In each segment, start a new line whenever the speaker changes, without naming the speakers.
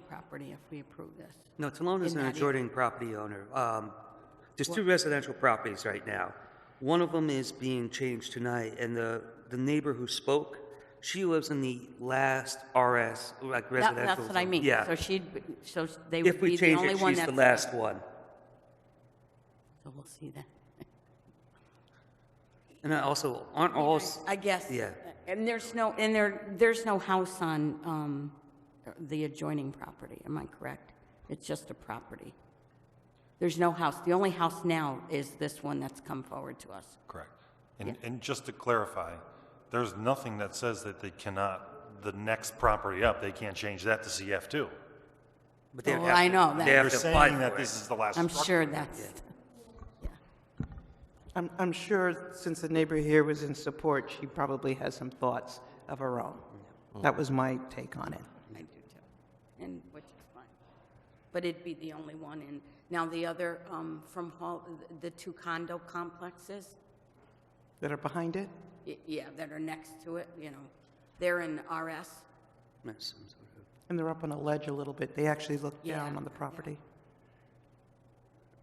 property if we approve this.
No, Talone is
In
an
that area.
adjoining property owner. Um, There's two residential properties right now. One of them is being changed tonight, and the, the neighbor who spoke, she lives in the last RS, like
That-
residential.
That's what I
zone.
mean.
Yeah.
So she'd, be- so they
If
would
we
be the
change
only
it,
one
she's the
that's...
last one.
So we'll see that.
And I also, aren't all, s-
I guess.
Yeah.
And there's no, and there, there's no house on um, the adjoining property, am I correct? It's just a property. There's no house. The only house now is this one that's come forward to us.
Correct. And, and just to clarify, there's nothing that says that they cannot, the next property up, they can't change that to CF2.
but they have
Oh,
to...
I know that.
They
They're
have to apply
saying that
for
this
it.
is the last
I'm
structure.
sure that's,
I'm, I'm sure since the neighbor here was in support, she probably has some thoughts of her own. That was my take on it.
I do too, and which is fine. But it'd be the only one in, now the other, um, from Hall, the two condo complexes,
That are behind it?
y- yeah, that are next to it, you know, they're in RS.
Yes, I'm sorry.
And they're up on a ledge a little bit. They actually look down
Yeah,
on the
yeah.
property.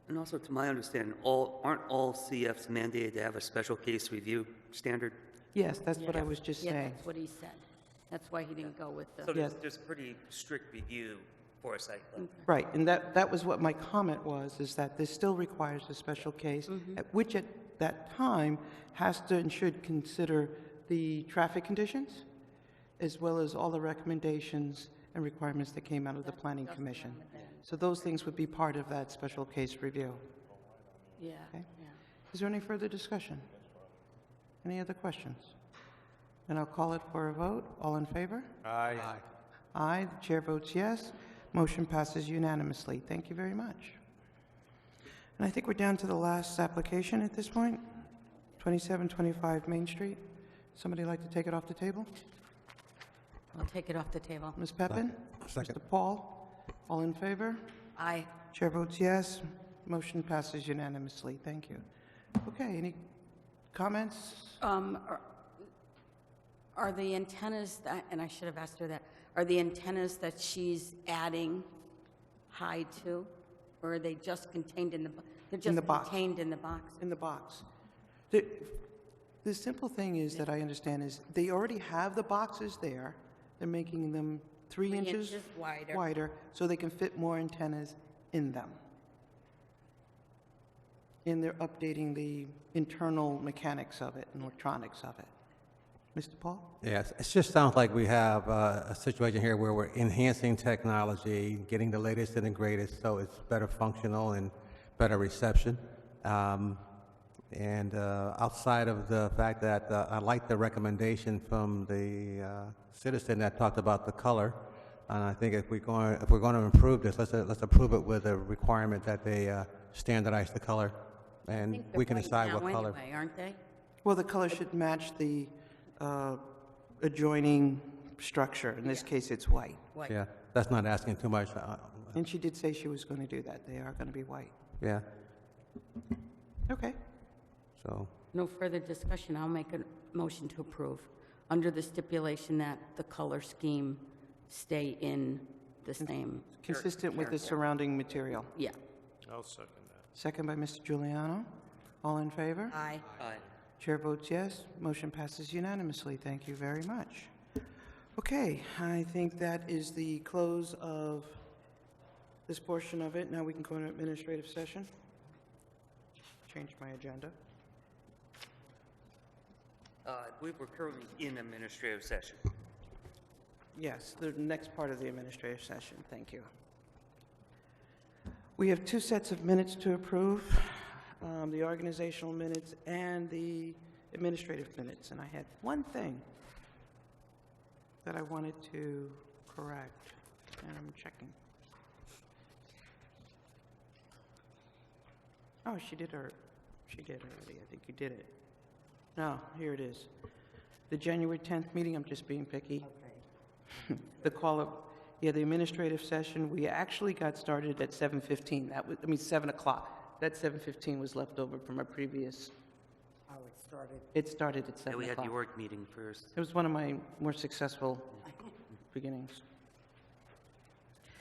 And also, to my understanding, all, aren't all CFs mandated to have a special case review standard?
Yes, that's what I was just
Yeah,
saying.
that's what he said. That's why he didn't go with
So
the,
there's,
Yes. Mm.
there's a pretty strict review for a site plan.
Right, and that, that was what my comment was, is that this still requires a special case, at- which at that time has to and should consider the traffic conditions, as well as all the recommendations and requirements that came out of the planning commission. So those things would be part of that special case review.
yeah,
Okay.
yeah.
Is there any further discussion? Any other questions? And I'll call it for a vote. All in favor? Aye. Aye, the chair votes yes. Motion passes unanimously. Thank you very much. And I think we're down to the last application at this point, 2725 Main Street. Somebody like to take it off the table?
I'll take it off the table.
Ms. Peppin? Mr. Paul? All in favor?
Aye.
Chair votes yes. Motion passes unanimously. Thank you. Okay, any comments?
Um, are- Are the antennas, that- and I should have asked her that, are the antennas that she's adding high to? Or are they just contained in the, bo- they're
the
just
box.
contained in the box?
In the box. The, the simple thing is that I understand is they already have the boxes there. They're making them three
Three
inches.
inches wider.
Wider, so they can fit more antennas in them. And they're updating the internal mechanics of it and electronics of it. Mr. Paul?
Yes, it just sounds like we have uh, a situation here where we're enhancing technology, getting the latest and the greatest, so it's better functional and better reception. Um, And uh, outside of the fact that uh, I like the recommendation from the uh, citizen that talked about the color, and I think if we're going, if we're going to improve this, let's, uh, let's approve it with a requirement that they uh, standardize the color, and we can decide what color.
Now anyway, aren't they?
Well, the color should match the uh, adjoining structure. In this case, it's white.
White.
Yeah, that's not asking too much. uh,
And she did say she was going to do that. They are going to be white.
Yeah,
Okay.
so.
No further discussion, I'll make a motion to approve, under the stipulation that the color scheme stay in the same,
Consistent with the surrounding material.
yeah.
Second by Mr. Giuliano. All in favor?
Aye.
Aye.
Chair votes yes. Motion passes unanimously. Thank you very much. Okay, I think that is the close of this portion of it. Now we can go into administrative session. Change my agenda.
Uh, I believe we're currently in administrative session.
Yes, the next part of the administrative session, thank you. We have two sets of minutes to approve, um, the organizational minutes and the administrative minutes, and I had one thing that I wanted to correct, and I'm checking. Oh, she did her, she did already, I think you did it. No, here it is. The January 10th meeting, I'm just being picky. The call of, yeah, the administrative session, we actually got started at 7:15. That was, I mean, 7 o'clock. That 7:15 was left over from our previous. Oh, it started? It started at
Yeah,
7
we had
o'clock.
the org meeting first.
It was one of my more successful beginnings.